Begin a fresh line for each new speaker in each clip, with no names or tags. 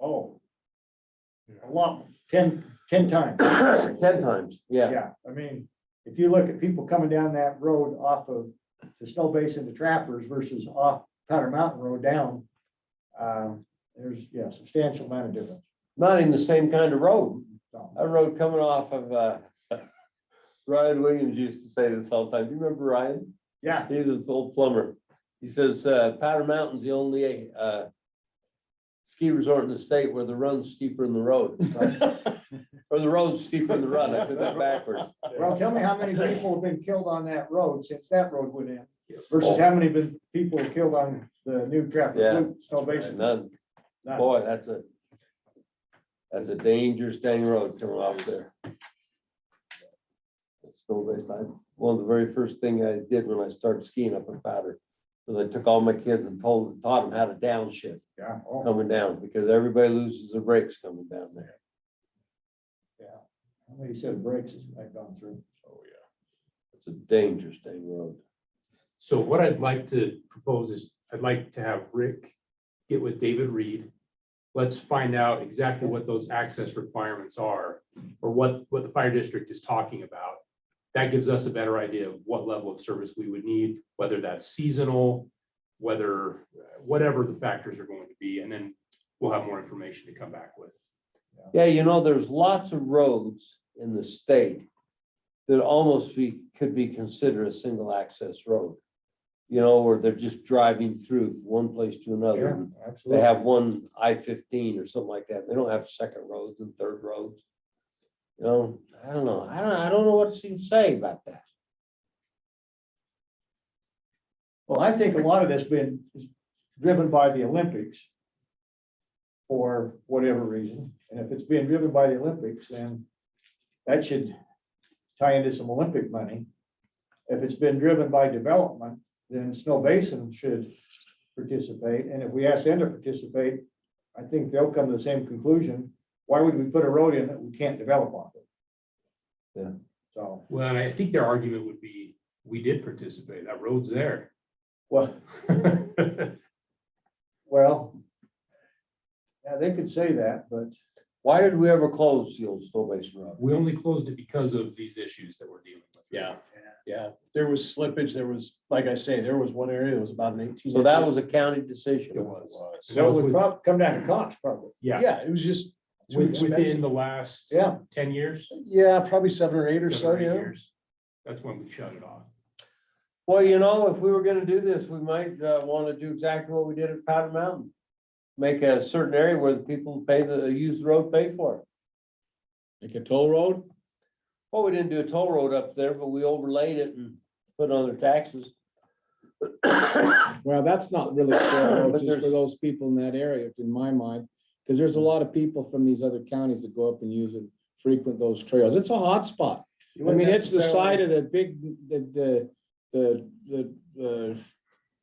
Oh. lump, ten, ten times.
Ten times, yeah.
Yeah, I mean, if you look at people coming down that road off of the Snow Basin to Trappers versus off Powder Mountain Road down. Um, there's, yeah, substantial amount of difference.
Not in the same kind of road.
So,
A road coming off of, uh, Ryan Williams used to say this all the time. Do you remember Ryan?
Yeah,
He's an old plumber. He says, uh, Powder Mountain's the only, uh, ski resort in the state where the run's steeper than the road. Or the road's steeper than the run. I said that backwards.
well, tell me how many people have been killed on that road since that road went in versus how many been- people were killed on the new Trappers
Oh. Yeah.
Loop, Snow Basin.
None.
None.
Boy, that's a, that's a dangerous dang road coming off there. It's still based on, one of the very first thing I did when I started skiing up in Powder, was I took all my kids and told, taught them how to downshift
Yeah, oh,
coming down, because everybody loses their brakes coming down there.
how many set of brakes has that gone through?
Oh, yeah.
It's a dangerous dang road.
So what I'd like to propose is, I'd like to have Rick get with David Reed. Let's find out exactly what those access requirements are, or what, what the fire district is talking about. That gives us a better idea of what level of service we would need, whether that's seasonal, whether, whatever the factors are going to be, and then we'll have more information to come back with.
Yeah, you know, there's lots of roads in the state that almost be, could be considered a single access road. You know, where they're just driving through from one place to another. They
absolutely.
have one I fifteen or something like that. They don't have second roads and third roads. You know, I don't know. I don't, I don't know what to say about that.
Well, I think a lot of this been is driven by the Olympics. For whatever reason, and if it's being driven by the Olympics, then that should tie into some Olympic money. If it's been driven by development, then Snow Basin should participate, and if we ask them to participate, I think they'll come to the same conclusion. Why would we put a road in that we can't develop off of?
Yeah.
So,
Well, and I think their argument would be, we did participate, that road's there.
well. Well. Yeah, they could say that, but
Why did we ever close the old Snow Basin Road?
We only closed it because of these issues that we're dealing with.
Yeah, yeah. There was slippage. There was, like I say, there was one area that was about an eighteen.
So that was a county decision.
It was.
was.
That
that
was
would
with-
prob- come down to cost probably.
Yeah,
Yeah, it was just. too
with- within
expensive.
the last
Yeah,
ten years.
Yeah, probably seven or eight or so,
seven eight
yeah.
years, That's when we shut it off.
Well, you know, if we were gonna do this, we might uh wanna do exactly what we did at Powder Mountain. Make a certain area where the people pay the, use the road, pay for it.
Like a toll road?
Well, we didn't do a toll road up there, but we overlaid it and put it on their taxes.
Well, that's not really a toll road,
But
just for
there's-
those people in that area, in my mind, because there's a lot of people from these other counties that go up and use and frequent those trails. It's a hot spot. I mean, it's the side of the big, the, the, the, the, the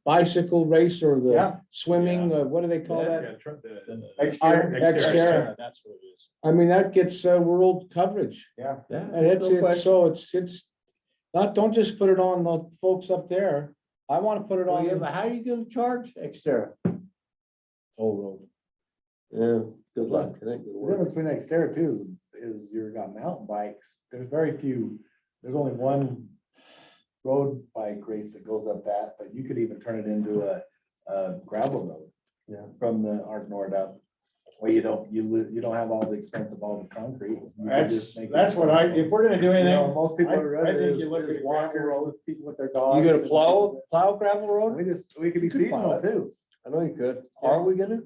bicycle race or
Yeah.
the swimming, uh, what do they call that?
Yeah, tr- the-
Exterior.
Exterra.
That's what it is.
I mean, that gets, uh, world coverage. And it's, it's, so it's, it's, not, don't just put it on the folks up there. I want to put it
Well,
on
yeah, but
the
How are you gonna charge Xterra?
toll road.
Yeah, good luck. It ain't gonna
The
work.
difference between Xterra too is, is you've got mountain bikes, there's very few, there's only one road bike race that goes up that, but you could even turn it into a, a gravel road.
Yeah.
From the Art Nord up, where you don't, you, li- you don't have all the expense of all the concrete. You could
That's,
just make it
that's what I,
simple.
if we're gonna do
You know,
anything,
Most people
I-
are
I
rather
think
is
you look at
is
a gravel
walkers with people with their dogs.
You gonna
and-
plow, plow gravel road?
We just, we could be
could plow
seasonal
it.
too.
I know you could. Are we gonna?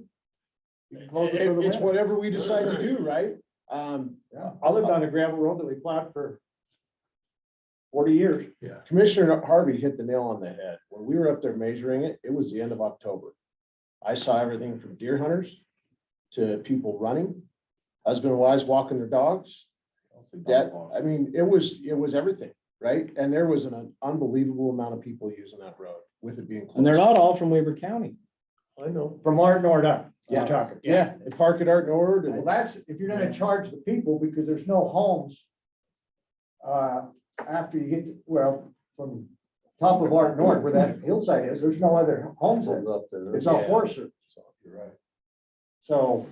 You can close it for the
It- It's
winter.
whatever we decide to do, right? Um,
I lived on a gravel road that we plowed for forty years.
Commissioner Harvey hit the nail on the head. When we were up there measuring it, it was the end of October. I saw everything from deer hunters to people running, husband and wives walking their dogs. That, I mean, it was, it was everything, right? And there was an unbelievable amount of people using that road with it being.
And they're
closed.
not all from Weber County.
I know.
From Art Nord up,
Yeah.
we're talking.
Yeah, and Park at Art Nord
Well,
and
that's, if you're gonna charge the people, because there's no homes. Uh, after you get, to- well, from top of Art Nord where that hillside is, there's no other homes there.
Up there.
It's all forest service.
You're right.
So